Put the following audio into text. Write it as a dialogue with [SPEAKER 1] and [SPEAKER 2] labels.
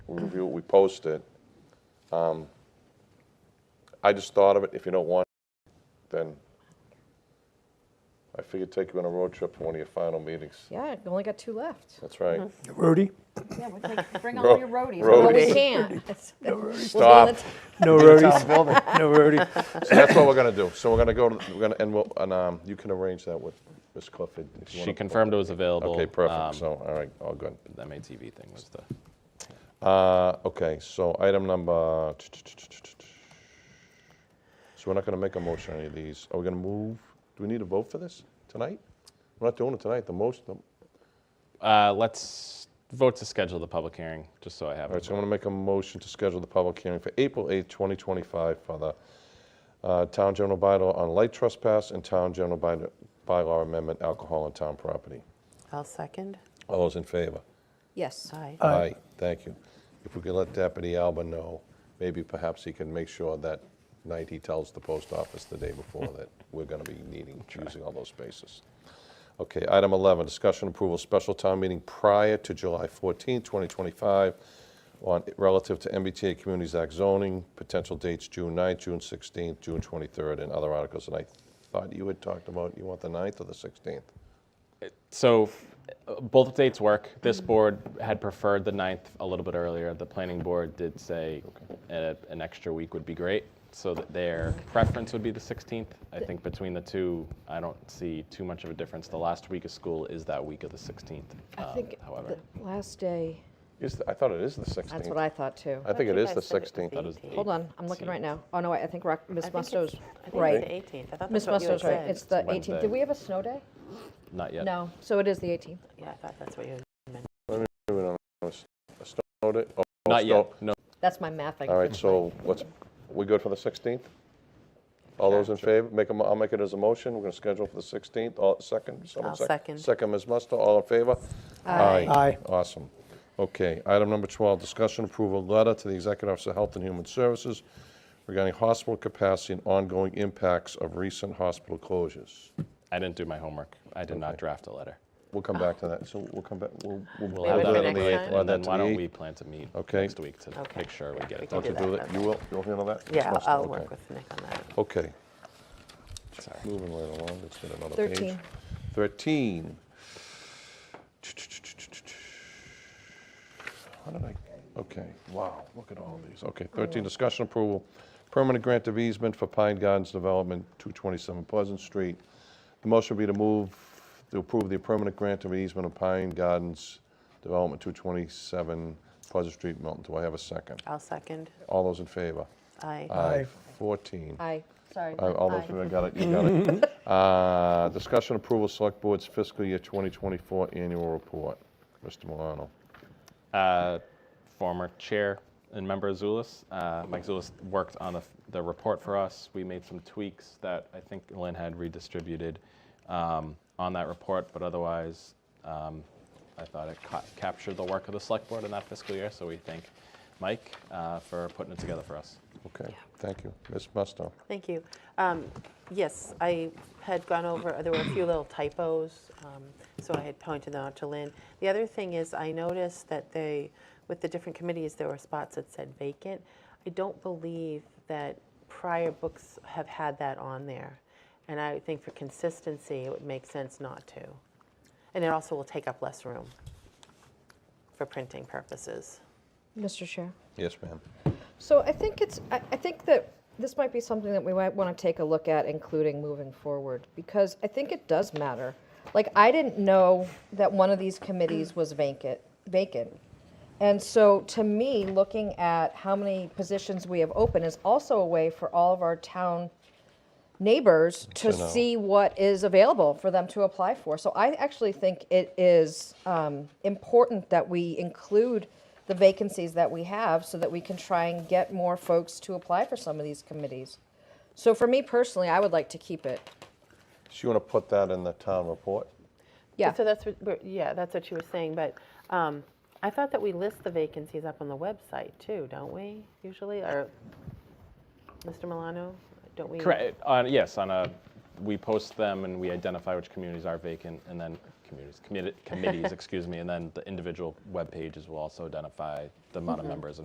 [SPEAKER 1] we review it, we post it. Um, I just thought of it, if you don't want, it, then I figured take you on a road trip for one of your final meetings.
[SPEAKER 2] Yeah, you only got two left.
[SPEAKER 1] That's right.
[SPEAKER 3] Roadie?
[SPEAKER 2] Yeah, we'll take, bring
[SPEAKER 1] Ro-
[SPEAKER 2] all your roadies. Well, we
[SPEAKER 1] roadies.
[SPEAKER 2] can't. We'll do
[SPEAKER 1] Stop.
[SPEAKER 2] the t-
[SPEAKER 3] No roadies. No roadie.
[SPEAKER 1] So that's what we're gonna do. So we're gonna go, to- we're gonna, and we'll, and, um, you can arrange that with Ms. Clifford. if you
[SPEAKER 4] She
[SPEAKER 1] wanna-
[SPEAKER 4] confirmed it was available.
[SPEAKER 1] Okay,
[SPEAKER 4] um,
[SPEAKER 1] perfect. So, all right, all good.
[SPEAKER 4] The MATV thing was the,
[SPEAKER 1] Uh, okay, so item number. So we're not gonna make a motion on any of these. Are we gonna move? Do we need a vote for this tonight? We're not doing it tonight. The most, the- all
[SPEAKER 4] uh, let's vote to schedule the public hearing, just so I have
[SPEAKER 1] right,
[SPEAKER 4] it.
[SPEAKER 1] so I'm gonna make a motion to schedule the public hearing for April eighth, twenty twenty-five for the, uh, town general bylaw on light trespass and town general bylaw, bylaw amendment alcohol on town property.
[SPEAKER 5] I'll second.
[SPEAKER 1] All those in favor?
[SPEAKER 2] Yes.
[SPEAKER 5] Aye.
[SPEAKER 1] Aye, thank you. If we could let Deputy Alba know, maybe perhaps he can make sure that night he tells the post office the day before that we're going to be needing, using all those spaces. Okay, item 11, discussion approval, special town meeting prior to July 14, 2025, on, relative to MBTA Communities Act zoning, potential dates June 9th, June 16th, June 23rd, and other articles. And I thought you had talked about, you want the 9th or the 16th?
[SPEAKER 4] So uh, both dates work. This board had preferred the 9th a little bit earlier. The planning board did say uh, an extra week would be great, so that their preference would be the 16th. I think between the two, I don't see too much of a difference. The last week of school is that week of the 16th,
[SPEAKER 2] I
[SPEAKER 4] um,
[SPEAKER 2] think
[SPEAKER 4] however.
[SPEAKER 2] the last day,
[SPEAKER 1] Is, the- I thought it is the 16th.
[SPEAKER 2] that's what I thought too.
[SPEAKER 1] I think it
[SPEAKER 5] thought you
[SPEAKER 1] is the
[SPEAKER 5] guys said it was
[SPEAKER 1] 16th.
[SPEAKER 5] the
[SPEAKER 1] That is-
[SPEAKER 5] 18th.
[SPEAKER 2] Hold on, I'm looking right now. Oh, no, wait, I think Rock- Ms.
[SPEAKER 5] I think it's-
[SPEAKER 2] Musto's
[SPEAKER 5] I think
[SPEAKER 2] right.
[SPEAKER 5] it's the 18th. I thought
[SPEAKER 2] Ms.
[SPEAKER 5] that's what you had
[SPEAKER 2] Musto's right.
[SPEAKER 5] said.
[SPEAKER 2] It's the
[SPEAKER 4] Wednesday.
[SPEAKER 2] 18th. Did we have a snow day?
[SPEAKER 4] Not yet.
[SPEAKER 2] No, so it is the 18th.
[SPEAKER 5] Yeah, I thought that's what you had.
[SPEAKER 1] Wait a minute, I'm gonna s- I snowed it. Oh, oh,
[SPEAKER 4] Not yet,
[SPEAKER 1] snow-
[SPEAKER 4] no.
[SPEAKER 2] That's my math. I
[SPEAKER 1] All right,
[SPEAKER 2] couldn't-
[SPEAKER 1] so what's, we good for the 16th? All those in favor, make a, mo- I'll make it as a motion, we're gonna schedule for the 16th, all, second, someone
[SPEAKER 5] I'll
[SPEAKER 1] sec-
[SPEAKER 5] second.
[SPEAKER 1] Second, Ms. Musto, all in favor? Aye.
[SPEAKER 3] Aye.
[SPEAKER 1] Awesome. Okay, item number 12, discussion approval letter to the Executive Office of Health and Human Services regarding hospital capacity and ongoing impacts of recent hospital closures.
[SPEAKER 4] I didn't do my homework. I did not draft a letter.
[SPEAKER 1] We'll come back to that, so we'll come back, we'll.
[SPEAKER 4] We'll
[SPEAKER 1] we'll
[SPEAKER 4] have
[SPEAKER 1] do
[SPEAKER 4] that
[SPEAKER 1] it on
[SPEAKER 4] on
[SPEAKER 2] next
[SPEAKER 4] the
[SPEAKER 2] time.
[SPEAKER 4] 8th,
[SPEAKER 1] We'll have
[SPEAKER 4] and then
[SPEAKER 1] that to
[SPEAKER 4] why
[SPEAKER 1] the
[SPEAKER 4] don't
[SPEAKER 1] 8th.
[SPEAKER 4] we plan to meet
[SPEAKER 1] Okay.
[SPEAKER 4] next week to
[SPEAKER 5] Okay.
[SPEAKER 4] make sure we
[SPEAKER 5] Yeah,
[SPEAKER 4] get
[SPEAKER 5] we
[SPEAKER 4] it
[SPEAKER 5] can
[SPEAKER 4] done.
[SPEAKER 1] Don't you do that, you will, you'll handle that?
[SPEAKER 5] Yeah,
[SPEAKER 1] Ms. Musto?
[SPEAKER 5] I'll
[SPEAKER 1] Okay.
[SPEAKER 5] work with Nick on that.
[SPEAKER 1] Okay. Moving right along, let's get another page.
[SPEAKER 2] 13.
[SPEAKER 1] 13. How did I, okay, wow, look at all these. Okay, 13, discussion approval, permanent grant of easement for Pine Gardens Development, 227 Pleasant Street. The motion would be to move, to approve the permanent grant of easement of Pine Gardens Development, 227 Pleasant Street, Milton. Do I have a second?
[SPEAKER 5] I'll second.
[SPEAKER 1] All those in favor?
[SPEAKER 5] Aye.
[SPEAKER 1] Aye. 14.
[SPEAKER 2] Aye, sorry.
[SPEAKER 1] Uh, All those,
[SPEAKER 2] Aye.
[SPEAKER 1] I got it, you got it. Uh, Discussion approval, Select Board's fiscal year 2024 annual report. Mr. Milano.
[SPEAKER 4] uh, former chair and member Zulus. Uh, Mike Zulus worked on the, the report for us. We made some tweaks that I think Lynn had redistributed um, on that report, but otherwise, um, I thought it ca- captured the work of the select board in that fiscal year. So we thank Mike uh, for putting it together for us.
[SPEAKER 1] Okay, thank you. Ms. Musto.
[SPEAKER 5] Thank you. Um, Yes, I had gone over, there were a few little typos, um, so I had pointed them out to Lynn. The other thing is, I noticed that they, with the different committees, there were spots that said vacant. I don't believe that prior books have had that on there, and I think for consistency, it would make sense not to. And it also will take up less room for printing purposes.
[SPEAKER 2] Mr. Chair.
[SPEAKER 1] Yes, ma'am.
[SPEAKER 2] So I think it's, I, I think that this might be something that we might want to take a look at, including moving forward, because I think it does matter. Like, I didn't know that one of these committees was vacant, vacant. And so, to me, looking at how many positions we have open is also a way for all of our town neighbors to
[SPEAKER 1] To know.
[SPEAKER 2] see what is available for them to apply for. So I actually think it is um, important that we include the vacancies that we have so that we can try and get more folks to apply for some of these committees. So for me personally, I would like to keep it.
[SPEAKER 1] So you want to put that in the town report?
[SPEAKER 2] Yeah.
[SPEAKER 5] So that's what, we're- yeah, that's what you were saying, but um, I thought that we list the vacancies up on the website too, don't we, usually, or, Mr. Milano, don't we?
[SPEAKER 4] Correct. On, yes, on a, we post them and we identify which communities are vacant, and then communities, committee- committees, excuse me, and then the individual web pages will also identify the amount of members